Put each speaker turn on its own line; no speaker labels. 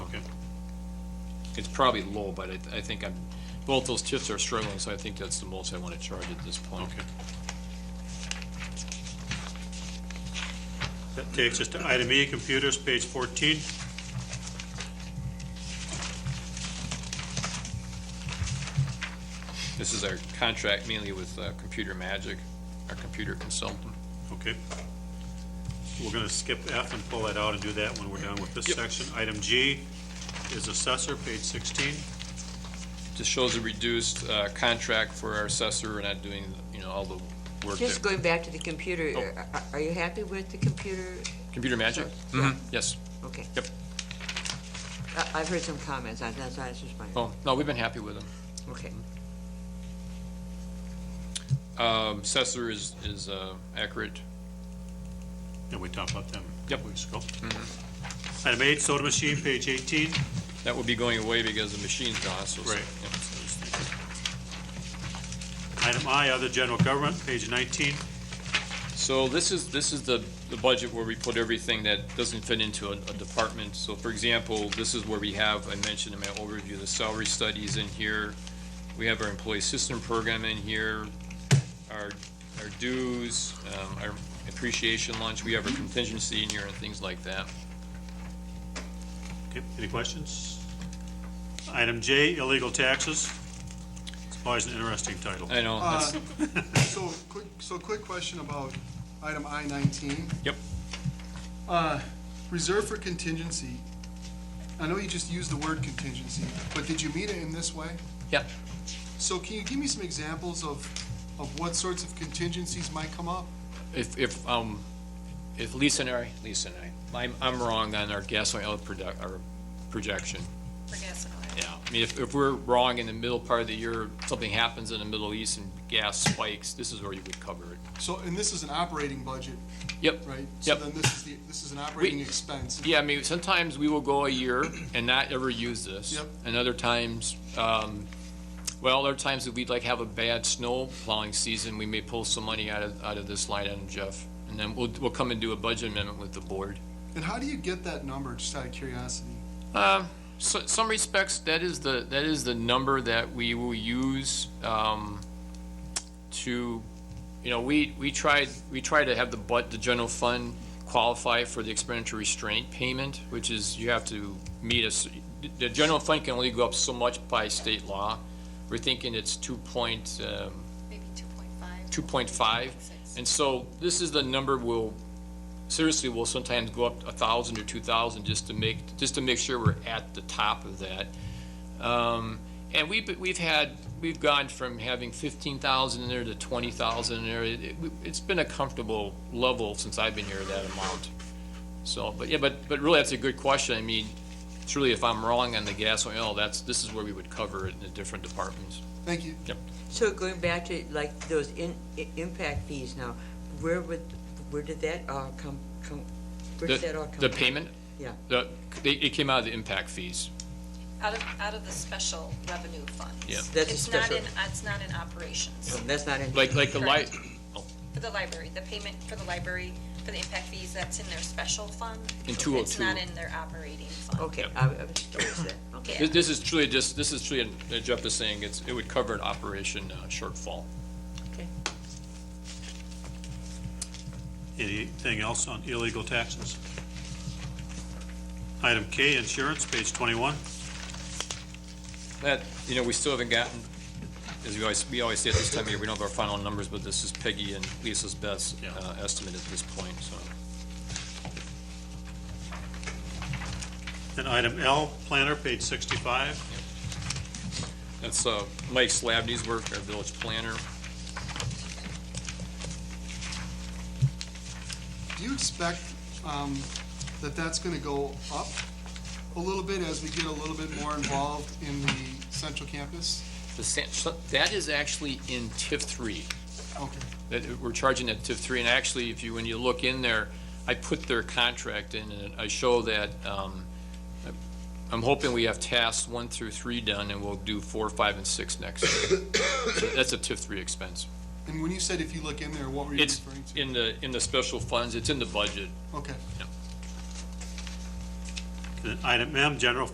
It's probably low, but I, th- I think I'm, both those tips are struggling, so I think that's the most I want to charge at this point.
Okay. That takes us to item E, computers, page 14.
This is our contract mainly with uh, Computer Magic, our computer consultant.
Okay. We're going to skip F and pull that out and do that when we're done with this
Yep.
section. Item G is assessor, page 16.
Just shows a reduced uh, contract for our assessor, we're not doing, you know, all the work
Just
that,
going back to the computer,
Oh.
are- are- are you happy with the computer?
Computer Magic?
Yeah.
Mhm,
Mm-hmm.
Yes.
Okay.
Yep.
I- I've heard some comments, I- that's why I was just wondering.
Oh, no, we've been happy with them.
Okay.
Um, Assessor is, is uh, accurate.
And we talked about them a
Yep. Mm-hmm.
couple weeks ago. Item H, soda machine, page 18.
That will be going away because the machine's gone, so.
Right.
Yep.
Item I, other general government, page 19.
So this is, this is the, the budget where we put everything that doesn't fit into a, a department. So for example, this is where we have, I mentioned in my overview, the salary studies in here. We have our employee system program in here, our, our dues, um, our appreciation lunch, we have our contingency in here and things like that.
Okay, any questions? Item J, illegal taxes. It's always an interesting title.
I know, that's,
So, quick, so quick question about item I nineteen.
Yep.
Uh, reserve for contingency. I know you just used the word contingency, but did you mean it in this way?
Yep.
So can you give me some examples of, of what sorts of contingencies might come up?
if, if, um, if Lisa and I, Lisa and I, I'm, I'm wrong on our gasoline oil product, our projection.
for gasoline.
Yeah, I mean, if, if we're wrong in the middle part of the year, something happens in the Middle East and gas spikes, this is where you would cover it.
So, and this is an operating budget,
Yep.
right?
Yep.
So then this is the, this is an operating expense.
Yeah, I mean, sometimes we will go a year and not ever use this.
Yep.
And other times, um, well, there are times that we'd like have a bad snow plowing season, we may pull some money out of, out of this line item, Jeff. And then we'll, we'll come and do a budget amendment with the board.
And how do you get that number, just out of curiosity?
Um, so, some respects, that is the, that is the number that we will use, um, to, you know, we, we tried, we try to have the, but, the general fund qualify for the expenditure restraint payment, which is you have to meet us, the general fund can only go up so much by state law. We're thinking it's two point, um,
Maybe 2.5.
2.5.
Six.
And so this is the number we'll, seriously, we'll sometimes go up a thousand or two thousand just to make, just to make sure we're at the top of that. Um, and we've, we've had, we've gone from having fifteen thousand in there to twenty thousand in there. It, it- it's been a comfortable level since I've been here, that amount. So, but yeah, but, but really, that's a good question. I mean, truly, if I'm wrong on the gas and oil, that's, this is where we would cover it in the different departments.
Thank you.
So going back to like those in, i- impact fees now, where would, where did that all come, come, where did that all
The,
come?
the
from?
payment?
Yeah.
The, they- it came out of the impact fees.
Out of, out of the special revenue funds.
Yeah.
That's a
It's not
special-
in, it's not in operations.
Oh, That's not in.
Like, like the light,
Correct. For the library, the payment for the library, for the impact fees, that's in their special fund.
In
It's
202.
not in their operating fund.
Okay, I I was curious there, okay.
this this is truly just, this is truly, uh, Jeff is saying, it's, it would cover an operation uh, shortfall.
Anything else on illegal taxes? Item K, insurance, page 21.
That, you know, we still haven't gotten, as we always, we always say at this time of year, we don't have our final numbers, but this is Peggy and Lisa's best
Yeah.
uh, estimate at this point, so.
And item L, planner, page 65.
That's uh, Mike Slavny's work, our village planner.
Do you expect um, that that's going to go up a little bit as we get a little bit more involved in the central campus?
The, san- so- that is actually in TIF three.
Okay,
that we're charging at TIF three, and actually, if you, when you look in there, I put their contract in, and I show that, um, I'm hoping we have tasks one through three done, and we'll do four, five, and six next year. So That's a TIF three expense.
and when you said if you look in there, what were you
It's
referring to?
in the, in the special funds, it's in the budget.
Okay.
And item M, general